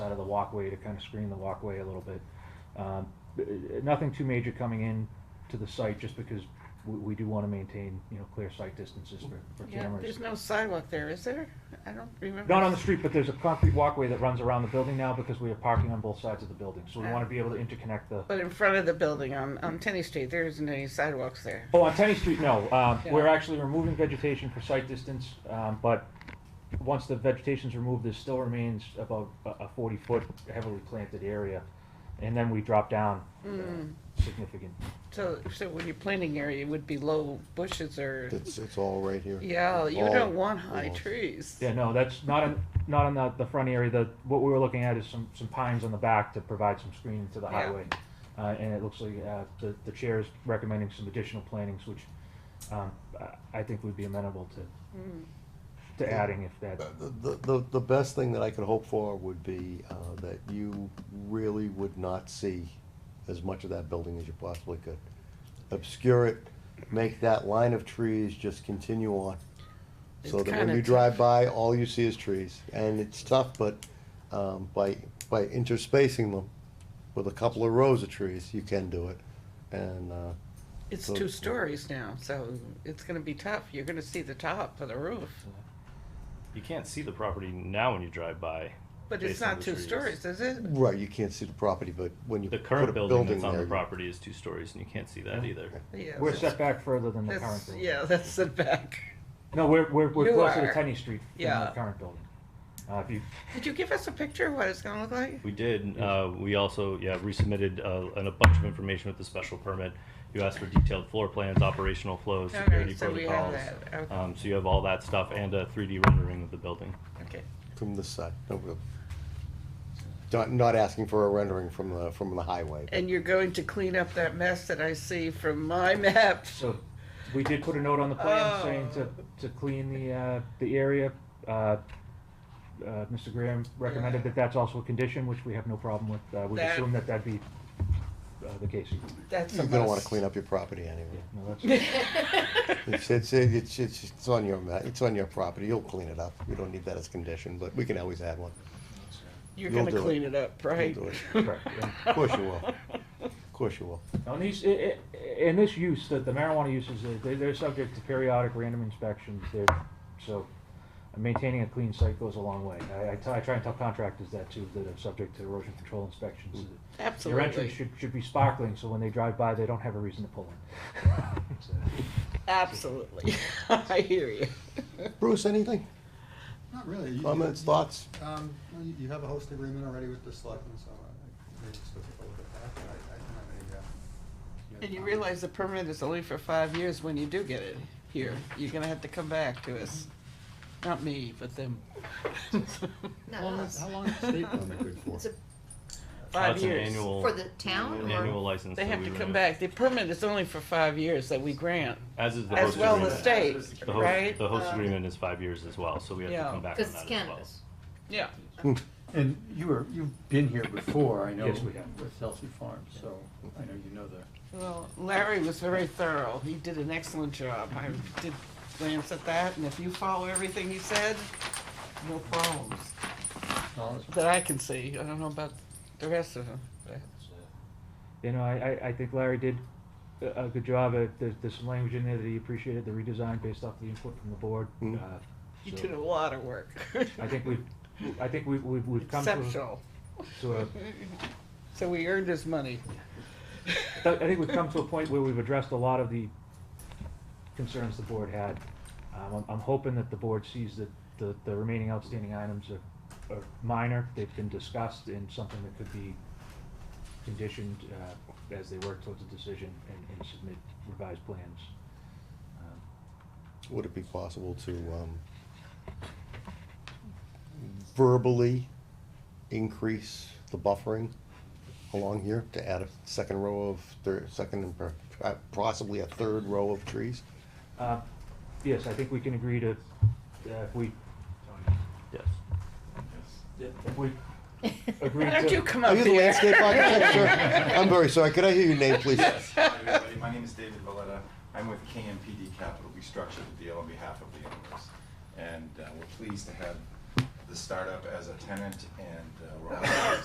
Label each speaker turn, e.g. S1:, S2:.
S1: walkway to kind of screen the walkway a little bit. Um, b- uh, Nothing too major coming in to the site, just because we, we do want to maintain, you know, clear sight distances for, for
S2: Yeah,
S1: cameras.
S2: there's no sidewalk there, is there? I don't remember.
S1: Not on the street, but there's a concrete walkway that runs around the building now because we are parking on both sides of the building, so we want to be able to interconnect the.
S2: But in front of the building on, on Tenny Street, there isn't any sidewalks there.
S1: Oh, on Tenny Street, no. Um,
S2: Yeah.
S1: We're actually removing vegetation for sight distance, um, but once the vegetation's removed, there still remains about a- a forty-foot heavily planted area. And then we drop down uh,
S2: Mm.
S1: significant.
S2: So, so when you're planting area, it would be low bushes or,
S3: It's, it's all right here.
S2: yeah, you
S3: All-
S2: don't want high
S3: all-
S2: trees.
S1: Yeah, no, that's not on, not on the, the front area. The, what we were looking at is some, some pines on the back to provide some screening to the
S2: Yeah.
S1: highway. Uh, and it looks like, uh, the, the chair is recommending some additional plantings, which, um, I, I think would be amenable to,
S2: Mm.
S1: to adding if that,
S3: The- The, the, the best thing that I could hope for would be, uh, that you really would not see as much of that building as you possibly could. Obscure it, make that line of trees just continue on. So
S2: It's
S3: that when
S2: kinda
S3: you
S2: tough.
S3: drive by, all you see is trees, and it's tough, but, um, by, by interspacing them with a couple of rows of trees, you can do it. And, uh,
S2: It's
S3: So-
S2: two stories now, so it's gonna be tough. You're gonna see the top of the roof.
S4: You can't see the property now when you drive by.
S2: But it's
S4: based on
S2: not
S4: the
S2: two
S4: trees.
S2: stories, is it?
S3: right, you can't see the property, but when you
S4: The
S3: put a
S4: current building that's on
S3: there,
S4: the
S3: you-
S4: property is two stories, and you can't see that
S1: Yeah.
S4: either.
S2: Yeah,
S1: we're
S2: that's-
S1: set back further than the current
S2: that's-
S1: building.
S2: Yeah, that's set back.
S1: No, we're, we're, we're
S2: You
S1: closer to
S2: are.
S1: Tenny Street than the
S2: Yeah.
S1: current building. Uh, if you,
S2: Did you give us a picture of what it's gonna look like?
S4: We did. Uh, we also yeah resubmitted uh, an, a bunch of information with the special permit. You asked for detailed floor plans, operational flows,
S2: All
S4: security
S2: right, Oh, so we have
S4: protocols.
S2: that. Okay.
S4: Um, so you have all that stuff and a 3D rendering of the building.
S2: Okay.
S3: From this side, no, real- Not, not asking for a rendering from the, from the highway.
S2: And you're going to clean up that mess that I see from my map.
S1: so, we did put a note on the plan saying to,
S2: Oh.
S1: to clean the, uh, the area. Uh, uh, Mr. Graham recommended
S2: Yeah.
S1: that that's also a condition, which we have no problem with. Uh, we
S2: That-
S1: assume that that'd be, uh, the case.
S2: That's
S3: You're gonna wanna clean up your property
S1: Yeah,
S3: anyway.
S1: no, that's,
S3: It's, it's, it's, it's, it's on your, ma- it's on your property, you'll clean it up, we don't need that as condition, but we can always add one.
S2: You're
S3: You'll
S2: gonna
S3: do it.
S2: clean it up, right?
S3: You'll do it.
S1: correct. yeah.
S3: Of course you will, of course you will.
S1: On these, i- i- in this use, the the marijuana uses, uh, they- they're subject to periodic random inspections, they're, so maintaining a clean site goes a long way. I- I t- I try and tell contractors that too, that are subject to erosion control inspections. Your entrance
S2: Absolutely,
S1: should, should be sparkling, so when they drive by, they don't have a reason to pull in. So,
S2: absolutely. I hear you.
S3: Bruce, anything?
S5: Not really. You-
S3: Comments,
S5: you-
S3: thoughts?
S5: Um, no, you you have a host agreement already with the selectmen, so uh, I maybe just took a look at that, but I, I don't have any, uh.
S2: And you realize the permit is only for five years when you do get it here. You're gonna have to come back to us. Not me, but them.
S5: How long is- how long is the state permit good for?
S6: It's a,
S2: Five
S4: That's an
S2: years.
S4: annual
S6: for the town
S4: an annual
S6: or?
S4: license.
S2: They
S4: that
S2: have
S4: we
S2: to come
S4: renew.
S2: back. The permit is only for five years that we grant,
S4: As is the
S2: as
S4: host
S2: well
S4: agreement.
S2: as state,
S4: The host,
S2: right?
S4: the host
S2: Um,
S4: agreement is five years as well, so we have
S2: Yeah.
S4: to come back on that
S6: Cause it's
S4: as
S6: cannabis.
S2: Yeah,
S7: And you were, you've been here before, I know.
S1: Yes, we have.
S7: With Elsie Farms, so I know you know the.
S2: well, Larry was very thorough. He did an excellent job. I did glance at that, and if you follow everything he said, no problems.
S7: knowledge.
S2: that I can see. I don't know about the rest of them.
S1: You know, I, I, I think Larry did a, a good job, Uh, there's, there's some language in there that he appreciated the redesign based off the input from the board.
S3: Mm.
S1: Uh,
S2: You
S1: so
S2: did a lot of work.
S1: I think we've, I think we've, we've we've come to, a-
S2: Exceptional.
S1: to a,
S2: So we earned his money.
S1: I I think we've come to a point where we've addressed a lot of the concerns the board had. Um, I'm, I'm hoping that the board sees that the, the remaining outstanding items are, are minor, they've been discussed and something that could be conditioned, uh, as they work towards a decision and, and submit revised plans. Um,
S3: Would it be possible to, um, verbally increase the buffering along here to add a second row of, thir- second and per- uh, possibly a third row of trees?
S1: Uh, yes, I think we can agree to, uh, if we,
S4: Yes.
S1: if we agree
S2: Why
S1: to.
S2: don't you come
S3: Are
S2: up
S3: you the
S2: here?
S3: landscape architect? Sure. I'm very sorry. Could I hear your name, please?
S8: Hi, everybody. My name is David Valletta. I'm with KMPD Capital. We structured the deal on behalf of the owners. And uh, we're pleased to have the startup as a tenant, and uh, we're also